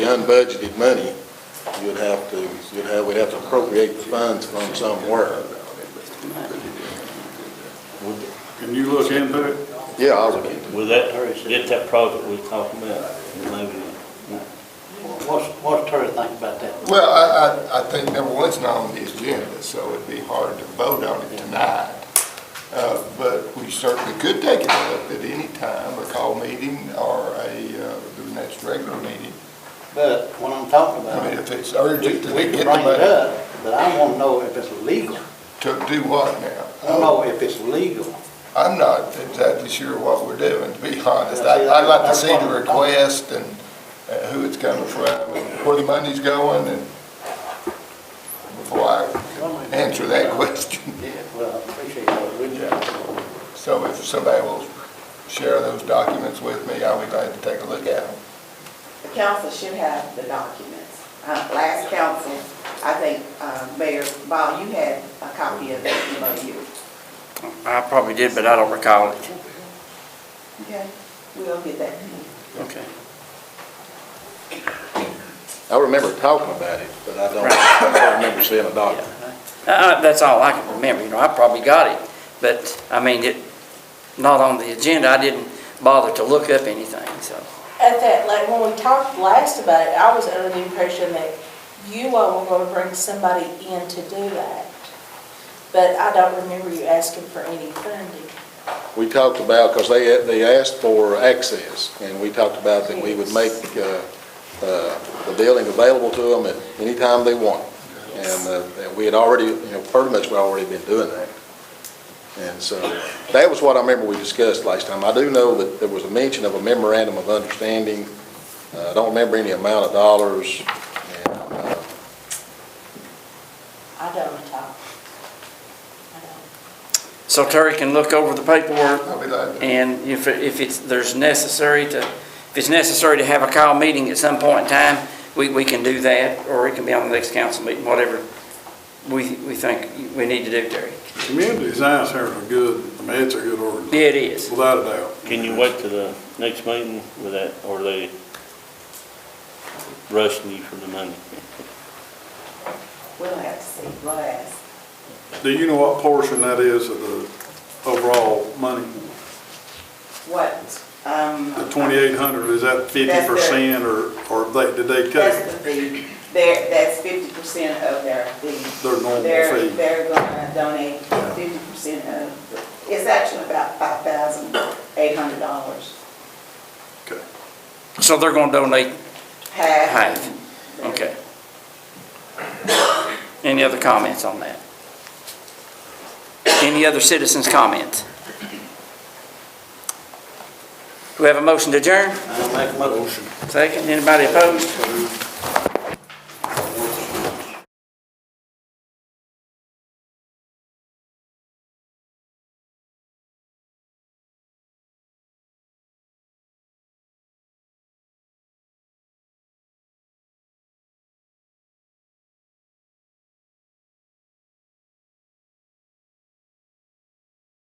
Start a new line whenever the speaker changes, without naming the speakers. unbudgeted money, you'd have to, you'd have, we'd have to appropriate the funds from somewhere.
Can you look into it?
Yeah, I would.
Will that, get that project we talking about, maybe,
What's, what's Terry think about that?
Well, I, I, I think number one, it's not on the agenda, so it'd be hard to vote on it tonight. Uh, but we certainly could take it up at any time, a call meeting or a, uh, the next regular meeting.
But what I'm talking
I
about,
mean, if it's
we we
urgent to
can
get the
bring it
money,
up, but I want to know if it's legal.
to do what now?
I don't know if it's legal.
I'm not exactly sure what we're doing, to be honest.
Yeah, see,
I- I'd like to
that's
see the
what I'm-
request and uh, who it's coming from, where the money's going, and before I answer that question.
Yeah, well, I appreciate that. We
Yeah. So if somebody will share those documents with me, I'll be glad to take a look at them.
Council should have the documents. Uh, Last council, I think, uh, Mayor Ball, you had a copy of the MOU.
I probably did, but I don't recall it.
Okay. We'll get that.
Okay.
I remember talking about it, but I don't, I don't remember seeing a document.
Uh, that's all I can remember, you know, I probably got it, but, I mean, it, not on the agenda, I didn't bother to look up anything, so.
At that, like, when we talked last about it, I was under the impression that you all were gonna bring somebody in to do that. But I don't remember you asking for any funding.
we talked about, because they, they asked for access, and we talked about that we would make uh, uh, the building available to them at any time they want. And uh, and we had already, you know, pretty much we already been doing that. And so, that was what I remember we discussed last time. I do know that there was a mention of a memorandum of understanding. Uh, I don't remember any amount of dollars. And, uh,
I don't talk. I don't.
So Terry can look over the paperwork,
I'll be glad to.
and if, it- if it's, there's necessary to, if it's necessary to have a call meeting at some point in time, we, we can do that, or it can be on the next council meeting, whatever we, we think we need to do, Terry.
Community design centers are good, I mean, it's a good
Yeah,
organization,
it is.
without a doubt.
can you wait to the next meeting with that, or they rushing you for the money?
We'll have to see, we'll ask.
Do you know what portion that is of the overall money?
What, um,
The twenty-eight hundred, is that fifty
That's
percent, or, or they, did they cut?
that's the fee, They're- that's fifty percent of their fee.
Their normal
They're-
fee.
They're gonna donate fifty percent of, it's actually about five thousand eight hundred dollars.
Okay.
So they're gonna donate
Half.
Half, okay. Any other comments on that? Any other citizens' comments? Do we have a motion to adjourn?
I make a motion.
Second, anybody opposed?